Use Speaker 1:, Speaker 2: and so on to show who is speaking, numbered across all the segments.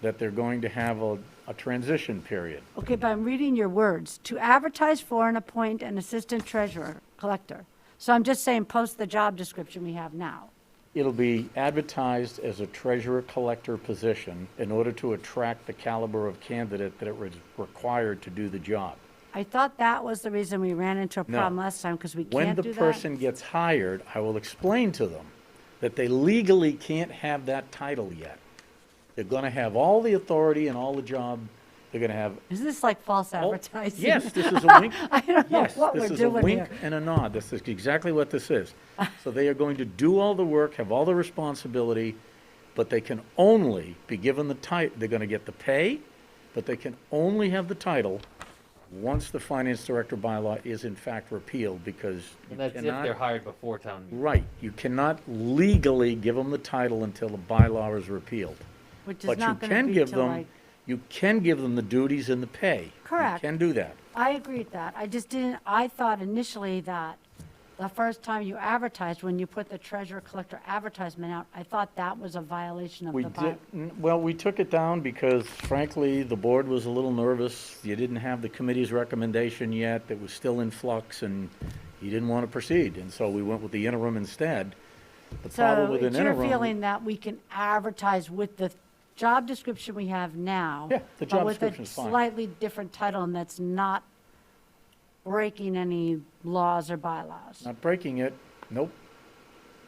Speaker 1: that they're going to have a, a transition period.
Speaker 2: Okay, but I'm reading your words, "To advertise for and appoint an assistant treasurer, collector." So I'm just saying, post the job description we have now.
Speaker 1: It'll be advertised as a treasurer collector position in order to attract the caliber of candidate that it was required to do the job.
Speaker 2: I thought that was the reason we ran into a
Speaker 1: No.
Speaker 2: problem last time, because we
Speaker 1: When
Speaker 2: can't
Speaker 1: the
Speaker 2: do that.
Speaker 1: person gets hired, I will explain to them that they legally can't have that title yet. They're gonna have all the authority and all the job, they're gonna have.
Speaker 2: Is this like false
Speaker 1: all-
Speaker 2: advertising?
Speaker 1: Oh, Yes, this is a wink.
Speaker 2: I don't know
Speaker 1: Yes,
Speaker 2: what
Speaker 1: this
Speaker 2: we're
Speaker 1: is a
Speaker 2: doing
Speaker 1: wink
Speaker 2: here.
Speaker 1: and a nod. This is exactly what this is. So they are going to do all the work, have all the responsibility, but they can only be given the title, they're going to get the pay, but they can only have the title once the finance director bylaw is in fact repealed because you
Speaker 3: And that's if they're
Speaker 1: cannot,
Speaker 3: hired before town meeting.
Speaker 1: right, you cannot legally give them the title until the bylaw is repealed.
Speaker 2: Which is
Speaker 1: But you
Speaker 2: not going
Speaker 1: can
Speaker 2: to be
Speaker 1: give
Speaker 2: till
Speaker 1: them,
Speaker 2: like,
Speaker 1: you can give them the duties and the pay.
Speaker 2: Correct.
Speaker 1: You can do that.
Speaker 2: I agree with that. I just didn't, I thought initially that the first time you advertised, when you put the treasurer collector advertisement out, I thought that was a violation of
Speaker 1: We
Speaker 2: the bylaw.
Speaker 1: did, n- well, we took it down because frankly, the board was a little nervous. You didn't have the committee's recommendation yet, it was still in flux, and you didn't want to proceed, and so we went with the interim instead. The problem
Speaker 2: So
Speaker 1: with an
Speaker 2: it's your
Speaker 1: interim.
Speaker 2: feeling that we can advertise with the job description we have now?
Speaker 1: Yeah, the job description is
Speaker 2: But
Speaker 1: fine.
Speaker 2: with a slightly different title and that's not breaking any laws or bylaws?
Speaker 1: Not breaking it, nope,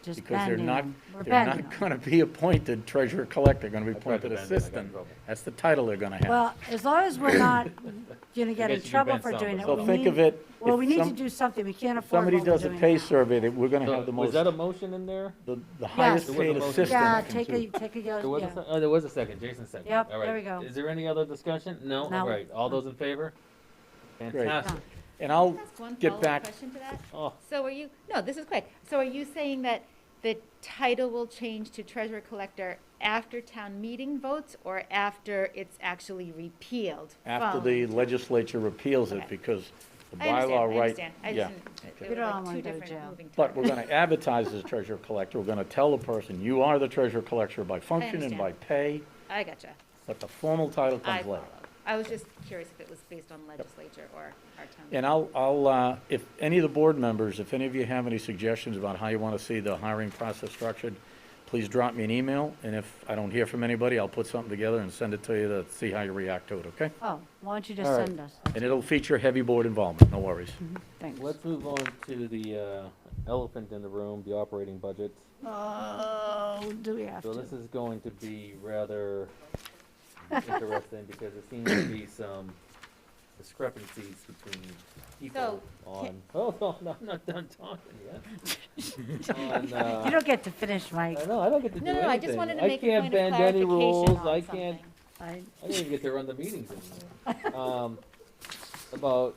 Speaker 2: Just
Speaker 1: because they're
Speaker 2: bending
Speaker 1: not,
Speaker 2: them. We're
Speaker 1: they're
Speaker 2: bending
Speaker 1: not
Speaker 2: them.
Speaker 1: going to be appointed treasurer collector, they're going to be
Speaker 3: I tried to
Speaker 1: appointed
Speaker 3: bend it, I got in
Speaker 1: assistant.
Speaker 3: trouble.
Speaker 1: That's the title they're going to have.
Speaker 2: Well, as long as we're not going to get in
Speaker 3: guess you
Speaker 2: trouble
Speaker 3: bent
Speaker 2: for
Speaker 3: some,
Speaker 2: doing it.
Speaker 3: but-
Speaker 1: So
Speaker 2: we
Speaker 1: think
Speaker 2: need-
Speaker 1: of it,
Speaker 2: Well,
Speaker 1: if
Speaker 2: we need to
Speaker 1: some-
Speaker 2: do something. We can't
Speaker 1: If
Speaker 2: afford what
Speaker 1: Somebody
Speaker 2: we're
Speaker 1: does a
Speaker 2: doing
Speaker 1: pay
Speaker 2: now.
Speaker 1: survey, that we're going to
Speaker 3: So,
Speaker 1: have the
Speaker 3: Was
Speaker 1: most,
Speaker 3: that a motion in there?
Speaker 1: the the highest
Speaker 2: There
Speaker 3: was a
Speaker 1: paid
Speaker 3: motion.
Speaker 1: assistant.
Speaker 2: Yeah,
Speaker 1: can
Speaker 2: take
Speaker 1: do
Speaker 2: a, take a,
Speaker 3: There
Speaker 2: go-
Speaker 3: was a,
Speaker 2: yeah.
Speaker 3: sec- oh, there was a second, Jason seconded.
Speaker 2: Yep,
Speaker 3: All right.
Speaker 2: there we go.
Speaker 3: Is there any other discussion? No?
Speaker 2: No.
Speaker 3: All right, all those in favor? Fantastic.
Speaker 1: And I'll
Speaker 4: That's one
Speaker 1: get
Speaker 4: follow-up
Speaker 1: back,
Speaker 4: question to that.
Speaker 3: Oh,
Speaker 4: So are you, no, this is quick. So are you saying that the title will change to treasurer collector after town meeting votes or after it's actually repealed?
Speaker 1: after
Speaker 4: from-
Speaker 1: the legislature repeals it,
Speaker 4: Okay.
Speaker 1: because the
Speaker 4: I understand,
Speaker 1: bylaw
Speaker 4: I
Speaker 1: right.
Speaker 4: understand. I
Speaker 1: yeah.
Speaker 4: just, didn't-
Speaker 1: Okay.
Speaker 4: it
Speaker 2: We don't
Speaker 4: was
Speaker 2: wanna
Speaker 4: like
Speaker 2: go
Speaker 4: two
Speaker 2: to
Speaker 4: different
Speaker 2: jail.
Speaker 4: moving.
Speaker 1: But we're gonna advertise as treasurer collector, we're gonna tell the person, you are the treasurer collector by function and
Speaker 4: understand.
Speaker 1: by pay,
Speaker 4: I gotcha.
Speaker 1: but the formal title
Speaker 4: I
Speaker 1: comes later.
Speaker 4: followed. I was just curious if it was based on legislature or our town.
Speaker 1: And I'll, I'll, uh, if any of the board members, if any of you have any suggestions about how you wanna see the hiring process structured, please drop me an email, and if I don't hear from anybody, I'll put something together and send it to you to see how you react to it, okay?
Speaker 2: Oh, why don't you just
Speaker 3: All right.
Speaker 2: send us?
Speaker 1: And it'll feature heavy board involvement, no worries.
Speaker 2: Thanks.
Speaker 3: let's move on to the uh, elephant in the room, the operating budget.
Speaker 2: Oh, do we have
Speaker 3: So
Speaker 2: to?
Speaker 3: this is going to be rather interesting because there seems to be some discrepancies between people on, hold on, I'm not done talking yet. On, uh,
Speaker 2: You don't get to finish, Mike.
Speaker 3: I know, I don't get to do
Speaker 4: No,
Speaker 3: anything.
Speaker 4: no, I just wanted to
Speaker 3: I
Speaker 4: make a
Speaker 3: can't
Speaker 4: point of
Speaker 3: bend any
Speaker 4: clarification
Speaker 3: rules, I
Speaker 4: on
Speaker 3: can't-
Speaker 4: something.
Speaker 3: Uh,
Speaker 2: I-
Speaker 3: I don't even get to run the meetings anymore. Um, about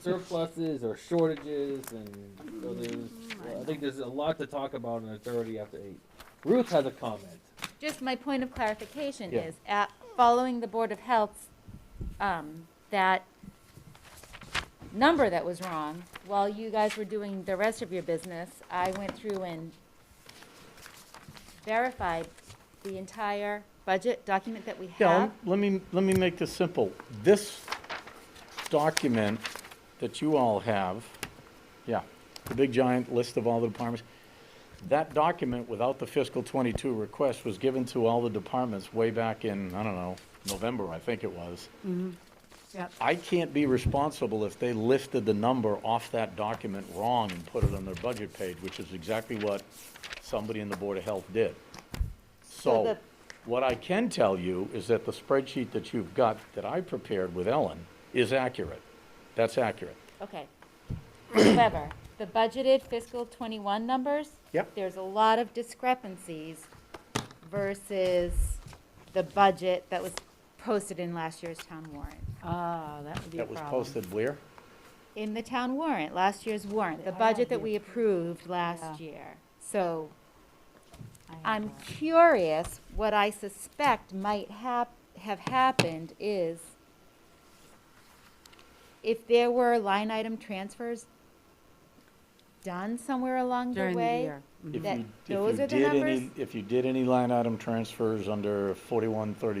Speaker 3: surpluses or shortages and so there's, I think there's a lot to talk about in authority after eight. Ruth has a comment.
Speaker 4: Just my point of clarification
Speaker 3: Yeah.
Speaker 4: is, at, following the Board of Health's, um, that number that was wrong, while you guys were doing the rest of your business, I went through and verified the entire budget document that we
Speaker 1: Yeah,
Speaker 4: have.
Speaker 1: let me, let me make this simple. This document that you all have, yeah, the big giant list of all the departments, that document without the fiscal '22 request was given to all the departments way back in, I don't know, November, I think it was.
Speaker 2: Yep.
Speaker 1: I can't be responsible if they lifted the number off that document wrong and put it on their budget page, which is exactly what somebody in the Board of Health did. So,
Speaker 4: So the-
Speaker 1: what I can tell you is that the spreadsheet that you've got, that I prepared with Ellen, is accurate. That's accurate.
Speaker 4: Okay. However, the budgeted fiscal twenty-one numbers.
Speaker 1: Yep.
Speaker 4: There's a lot of discrepancies versus the budget that was posted in last year's town warrant.
Speaker 2: Ah, that would be a
Speaker 1: That was
Speaker 2: problem.
Speaker 1: posted where?
Speaker 4: In the town warrant, last year's warrant, the
Speaker 2: I
Speaker 4: budget
Speaker 2: have
Speaker 4: that
Speaker 2: the
Speaker 4: we approved
Speaker 2: Yeah.
Speaker 4: last year. So
Speaker 2: I have
Speaker 4: I'm
Speaker 2: that.
Speaker 4: curious, what I suspect might hap, have happened is if there were line item transfers done somewhere along the
Speaker 2: During the
Speaker 4: way.
Speaker 2: year.
Speaker 1: If you-
Speaker 4: That-
Speaker 1: if you
Speaker 4: those are the
Speaker 1: did any-
Speaker 4: numbers?
Speaker 1: If you did any line item transfers under 4133